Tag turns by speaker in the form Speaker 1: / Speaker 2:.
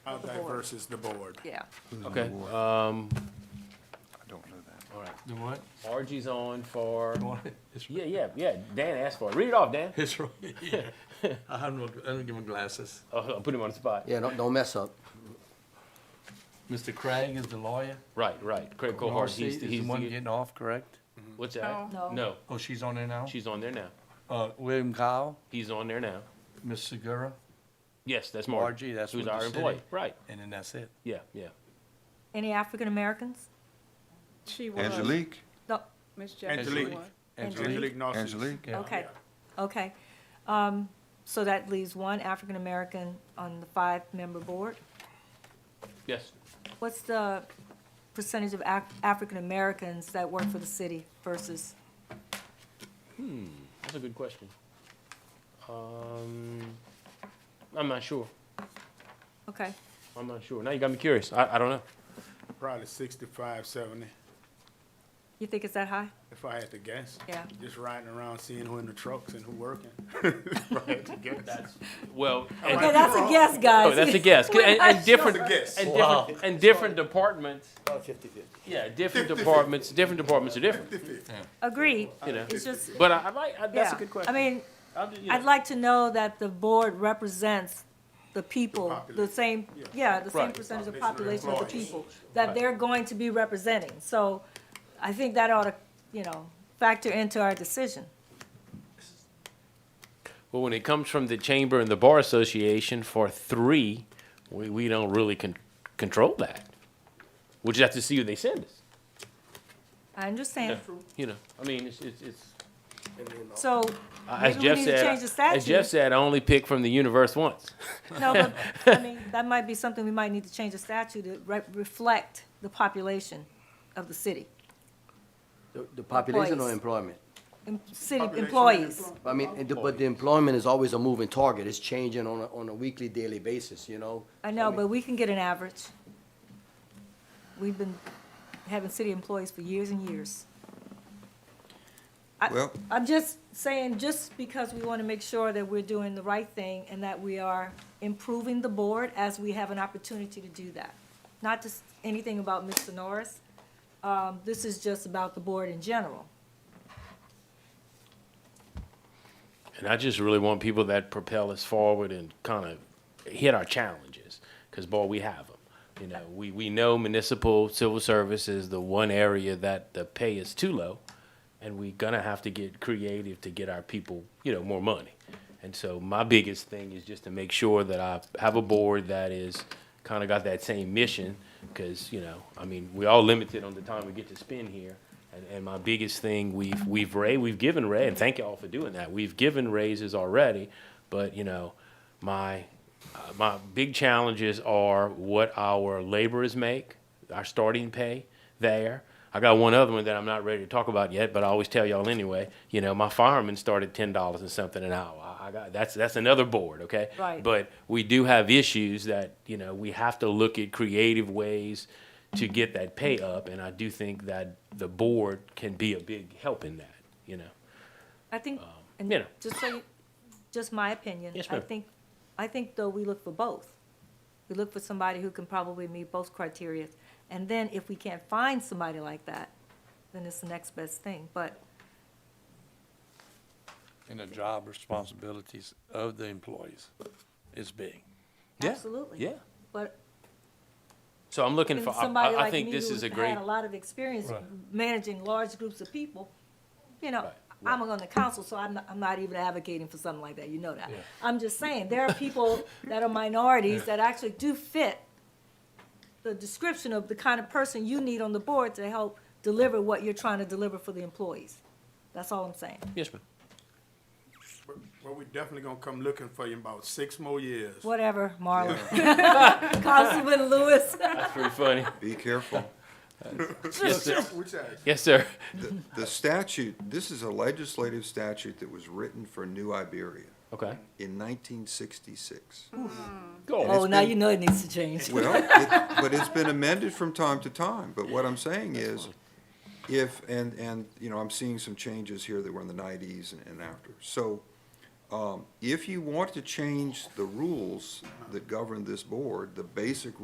Speaker 1: How diverse is the board?
Speaker 2: Yeah.
Speaker 3: Okay, um,
Speaker 4: I don't know that.
Speaker 3: all right.
Speaker 5: The what?
Speaker 3: RG's on for,
Speaker 5: It's
Speaker 3: yeah, yeah, yeah, Dan asked for it. Read it off, Dan.
Speaker 5: It's right. Yeah. I have no, I don't give him glasses.
Speaker 3: Uh, I'll put him on the spot.
Speaker 6: Yeah, don't, don't mess up.
Speaker 5: Mr. Craig is the lawyer.
Speaker 3: Right, right. Craig Cohart,
Speaker 5: Marcy
Speaker 3: he's,
Speaker 5: is the
Speaker 3: he's,
Speaker 5: one
Speaker 3: the-
Speaker 5: getting off, correct?
Speaker 3: what's that?
Speaker 2: No.
Speaker 3: No,
Speaker 5: Oh, she's on there now?
Speaker 3: she's on there now.
Speaker 5: Uh, William Kyle,
Speaker 3: He's on there now.
Speaker 5: Ms. Segura,
Speaker 3: Yes, that's Mark.
Speaker 5: RG, that's
Speaker 3: Who's
Speaker 5: with the
Speaker 3: our employee,
Speaker 5: city.
Speaker 3: right,
Speaker 5: and then that's it.
Speaker 3: yeah, yeah.
Speaker 2: Any African Americans?
Speaker 7: She was.
Speaker 4: Angelique,
Speaker 2: No,
Speaker 7: Ms. Jackson
Speaker 1: Angelique.
Speaker 7: was.
Speaker 1: Angelique Nossis.
Speaker 4: Angelique,
Speaker 5: Yeah.
Speaker 2: okay, okay. Um, so that leaves one African American on the five-member board.
Speaker 3: Yes.
Speaker 2: What's the percentage of Af- African Americans that work for the city versus,
Speaker 3: That's a good question. Um, I'm not sure.
Speaker 2: okay,
Speaker 3: I'm not sure. Now you got me curious. I, I don't know.
Speaker 1: Probably sixty-five, seventy,
Speaker 2: you think it's that high?
Speaker 1: if I had to guess.
Speaker 2: Yeah.
Speaker 1: Just riding around, seeing who in the trucks and who working. If I had to guess.
Speaker 3: Well, and,
Speaker 2: Okay, that's a guess,
Speaker 3: oh,
Speaker 2: guys.
Speaker 3: that's a guess. 'Cause- And, and different,
Speaker 1: That's a guess.
Speaker 3: and different, and different departments. Yeah, different departments. Different departments are different.
Speaker 2: Agreed,
Speaker 3: You know.
Speaker 2: it's just,
Speaker 3: But I, I like. I, that's
Speaker 2: yeah.
Speaker 3: a good question.
Speaker 2: I mean,
Speaker 3: I'll do- you know.
Speaker 2: I'd like to know that the board represents the people, the
Speaker 1: population.
Speaker 2: same, yeah, the same
Speaker 3: Right.
Speaker 2: percentage of
Speaker 1: Population
Speaker 2: population
Speaker 1: of
Speaker 2: of the
Speaker 1: employees.
Speaker 2: people that they're going to be representing. So I think that ought to, you know, factor into our decision.
Speaker 3: Well, when it comes from the chamber and the bar association for three, we, we don't really con- control that. We just have to see who they send us.
Speaker 2: I understand.
Speaker 3: You know. I mean, it's it's. it's
Speaker 2: So
Speaker 3: as
Speaker 2: maybe we
Speaker 3: Jeff
Speaker 2: need to
Speaker 3: said,
Speaker 2: change the
Speaker 3: as
Speaker 2: statute.
Speaker 3: Jeff said, I only pick from the universe once.
Speaker 2: No, but, I mean, that might be something we might need to change the statute to re- reflect the population of the city,
Speaker 6: The, the population or
Speaker 2: Employees.
Speaker 6: employment?
Speaker 2: em- city
Speaker 1: Population of
Speaker 2: employees.
Speaker 1: employees.
Speaker 6: I mean, and the- but the employment is always a moving target. It's changing on a, on a weekly, daily basis, you know?
Speaker 2: I know,
Speaker 6: mean-
Speaker 2: but we can get an average. We've been having city employees for years and years. I-
Speaker 4: Well-
Speaker 2: I'm just saying, just because we want to make sure that we're doing the right thing and that we are improving the board as we have an opportunity to do that. Not just anything about Mr. Norris. Um, This is just about the board in general.
Speaker 3: And I just really want people that propel us forward and kind of hit our challenges, because boy, we have them. You know, we, we know municipal civil service is the one area that the pay is too low, and we gonna have to get creative to get our people, you know, more money. And so my biggest thing is just to make sure that I have a board that is kind of got that same mission, because, you know, I mean, we all limited on the time we get to spend here. And, and my biggest thing, we've, we've ra, we've given ra, and thank y'all for doing that, we've given raises already, but, you know, my, uh, my big challenges are what our laborers make, our starting pay there. I got one other one that I'm not ready to talk about yet, but I always tell y'all anyway, you know, my firemen start at ten dollars and something an hour. I- I got, that's, that's another board, okay?
Speaker 2: Right.
Speaker 3: But we do have issues that, you know, we have to look at creative ways to get that pay up, and I do think that the board can be a big help in that, you know?
Speaker 2: I think,
Speaker 3: you
Speaker 2: and
Speaker 3: know.
Speaker 2: just so, you- just my opinion.
Speaker 3: Um, Yes,
Speaker 2: I
Speaker 3: ma'am.
Speaker 2: think, I think though we look for both. We look for somebody who can probably meet both criteria. And then if we can't find somebody like that, then it's the next best thing. But
Speaker 5: And the job responsibilities of the employees is big.
Speaker 3: Yeah,
Speaker 2: absolutely.
Speaker 3: Yeah,
Speaker 2: But
Speaker 3: so I'm looking
Speaker 2: and
Speaker 3: for, I-
Speaker 2: somebody
Speaker 3: I, I
Speaker 2: like
Speaker 3: think
Speaker 2: me
Speaker 3: this
Speaker 2: who's
Speaker 3: is a
Speaker 2: had
Speaker 3: great,
Speaker 2: a lot of experience
Speaker 5: Right.
Speaker 2: managing large groups of people, you know,
Speaker 3: Right,
Speaker 2: I'm on the council, so I'm, not- I'm not even advocating for something like that, you know that. I'm just saying, there are people that are minorities that actually do fit the description of the kind of person you need on the board to help deliver what you're trying to deliver for the employees. That's all I'm saying.
Speaker 3: yes, ma'am.
Speaker 1: But- But we definitely gonna come looking for you in about six more years.
Speaker 2: Whatever, Marlon. Councilman Lewis.
Speaker 3: That's pretty funny.
Speaker 4: be careful.
Speaker 3: Yes, sir.
Speaker 1: Which I-
Speaker 3: Yes, sir.
Speaker 4: The- The statute, this is a legislative statute that was written for New Iberia
Speaker 3: Okay.
Speaker 4: in nineteen sixty-six.
Speaker 3: Go
Speaker 2: Oh,
Speaker 4: it's
Speaker 2: now
Speaker 4: been-
Speaker 2: you know it needs to change.
Speaker 4: Well, it- but it's been amended from time to time, but what I'm saying is, if, and, and, you know, I'm seeing some changes here that were in the nineties and, and after. So, Um, if you want to change the rules that govern this board, the basic